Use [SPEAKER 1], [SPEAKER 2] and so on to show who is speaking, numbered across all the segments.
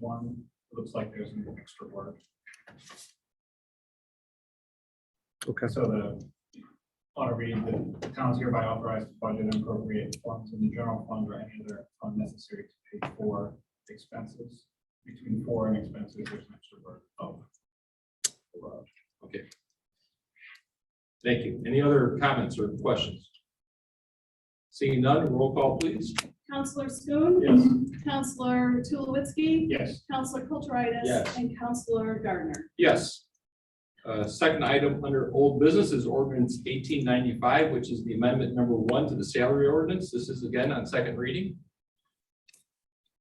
[SPEAKER 1] one, looks like there's an extra word.
[SPEAKER 2] Okay.
[SPEAKER 1] So the, want to read, the town is hereby authorized to budget and appropriate funds in the general fund or any other fund necessary to pay for expenses. Between for and expenses, there's an extra word. Oh.
[SPEAKER 3] Okay. Thank you. Any other comments or questions? Seeing none, roll call please.
[SPEAKER 4] Counselor Schoen.
[SPEAKER 1] Yes,
[SPEAKER 4] Counselor Tulowitzki.
[SPEAKER 1] yes,
[SPEAKER 4] Counselor Kulturitis.
[SPEAKER 3] Yes.
[SPEAKER 4] And Counselor Gardner.
[SPEAKER 3] Yes. Uh, Second item under old business is ordinance eighteen ninety-five, which is the amendment number one to the salary ordinance. This is again on second reading.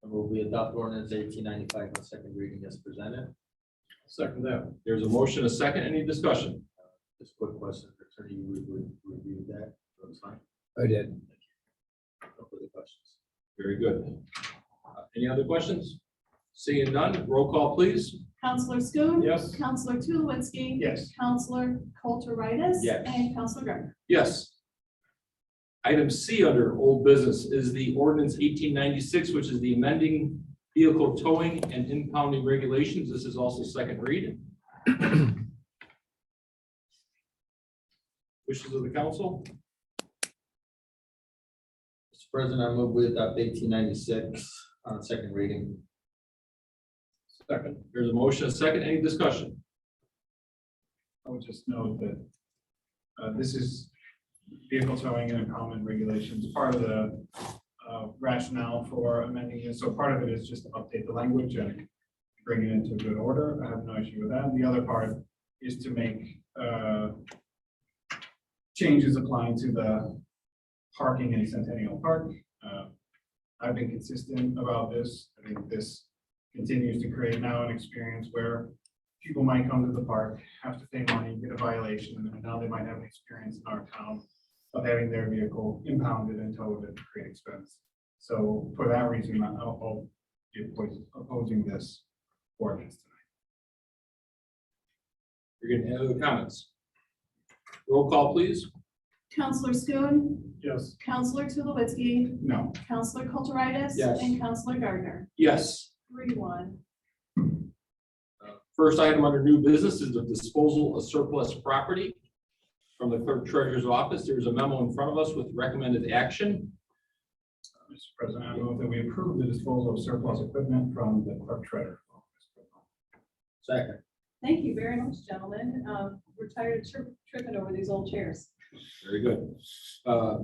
[SPEAKER 5] And will we adopt ordinance eighteen ninety-five on second reading as presented?
[SPEAKER 3] Second that. There's a motion, a second, any discussion?
[SPEAKER 5] Just quick question, attorney, you re- re- reviewed that, that was fine,
[SPEAKER 2] I did.
[SPEAKER 5] no further questions.
[SPEAKER 3] Very good. Uh, Any other questions? Seeing none, roll call please.
[SPEAKER 4] Counselor Schoen.
[SPEAKER 1] Yes.
[SPEAKER 4] Counselor Tulowitzki.
[SPEAKER 1] yes.
[SPEAKER 4] Counselor Kulturitis.
[SPEAKER 3] Yes.
[SPEAKER 4] And Counselor Gardner.
[SPEAKER 3] Yes. Item C under old business is the ordinance eighteen ninety-six, which is the amending vehicle towing and impounding regulations. This is also second read. Wishes of the council?
[SPEAKER 5] Mr. President, I move we adopt eighteen ninety-six on second reading.
[SPEAKER 3] Second. There's a motion, a second, any discussion?
[SPEAKER 1] I would just note that uh, this is vehicle towing and impoundment regulations, part of the uh, rationale for amending it. So part of it is just to update the language and bring it into good order. I have no issue with that. And the other part is to make uh, changes applying to the parking in Centennial Park. Uh, I've been consistent about this. I think this continues to create now an experience where people might come to the park, have to pay money, get a violation, and then now they might have an experience in our town of having their vehicle impounded and towed at great expense. So for that reason, I'll, I'll be opposed- opposing this ordinance tonight.
[SPEAKER 3] You're gonna have other comments? Roll call, please.
[SPEAKER 4] Counselor Schoen.
[SPEAKER 1] Yes.
[SPEAKER 4] Counselor Tulowitzki.
[SPEAKER 1] No,
[SPEAKER 4] Counselor Kulturitis.
[SPEAKER 3] Yes.
[SPEAKER 4] And Counselor Gardner.
[SPEAKER 3] Yes.
[SPEAKER 4] Three one.
[SPEAKER 3] First item under new business is the disposal of surplus property. From the clerk treasurer's office, there's a memo in front of us with recommended action.
[SPEAKER 1] Mr. President, I move that we approve the disposal of surplus equipment from the clerk treasurer.
[SPEAKER 5] Second.
[SPEAKER 4] Thank you very much, gentlemen. Um, We're tired of tri- tripping over these old chairs.
[SPEAKER 3] Very good. Uh,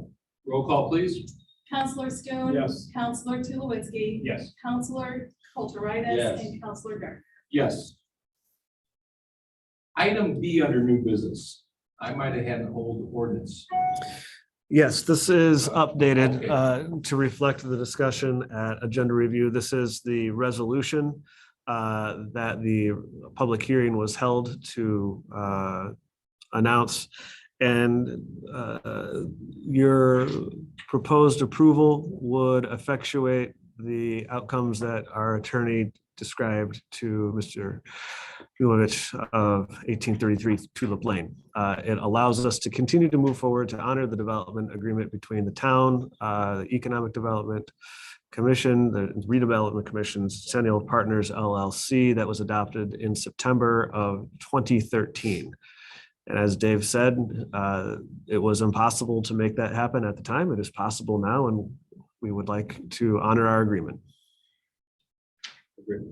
[SPEAKER 3] Roll call, please.
[SPEAKER 4] Counselor Schoen.
[SPEAKER 1] Yes.
[SPEAKER 4] Counselor Tulowitzki.
[SPEAKER 1] Yes,
[SPEAKER 4] Counselor Kulturitis.
[SPEAKER 5] Yes.
[SPEAKER 4] And Counselor Gardner.
[SPEAKER 3] Yes. Item B under new business. I might have had an old ordinance.
[SPEAKER 2] Yes, this is
[SPEAKER 3] Okay.
[SPEAKER 2] updated uh, to reflect the discussion at agenda review. This is the resolution uh, that the public hearing was held to uh, announce. And uh, your proposed approval would effectuate the outcomes that our attorney described to Mr. Julovich of 1833 Tulip Lane. Uh, It allows us to continue to move forward to honor the development agreement between the town, uh, the Economic Development Commission, the Redevelopment Commission, Centennial Partners LLC that was adopted in September of 2013. And as Dave said, uh, it was impossible to make that happen at the time. It is possible now, and we would like to honor our agreement.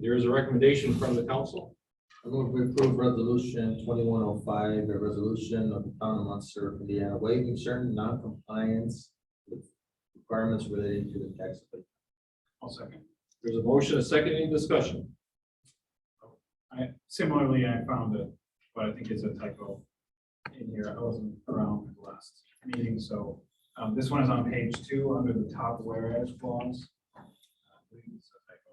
[SPEAKER 3] There is a recommendation from the council.
[SPEAKER 5] I move we approve resolution twenty-one oh five, a resolution of the town of Munster, Indiana, waiving certain non-compliance with requirements relating to the tax. abatement.
[SPEAKER 1] I'll second.
[SPEAKER 3] There's a motion, a second, any discussion?
[SPEAKER 1] I, similarly, I found it, but I think it's a typo in here. I wasn't around for the last meeting, so um, this one is on page two, under the top whereas clause. Uh, I believe it's a typo.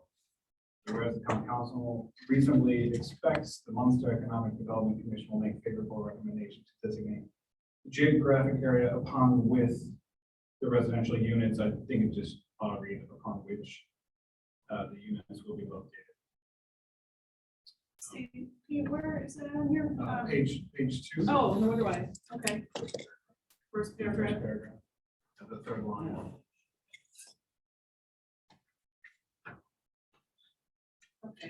[SPEAKER 1] Whereas the town council reasonably expects the Munster Economic Development Commission will make favorable recommendation to designate the geographic area upon with the residential units. I think it just ought to read upon which uh, the units will be located.
[SPEAKER 4] See, where is it on here?
[SPEAKER 1] Uh,
[SPEAKER 4] Um,
[SPEAKER 1] Page, page two.
[SPEAKER 4] Oh, no wonder why. Okay. First
[SPEAKER 1] The first
[SPEAKER 4] paragraph.
[SPEAKER 1] paragraph, of the third line.
[SPEAKER 4] Okay.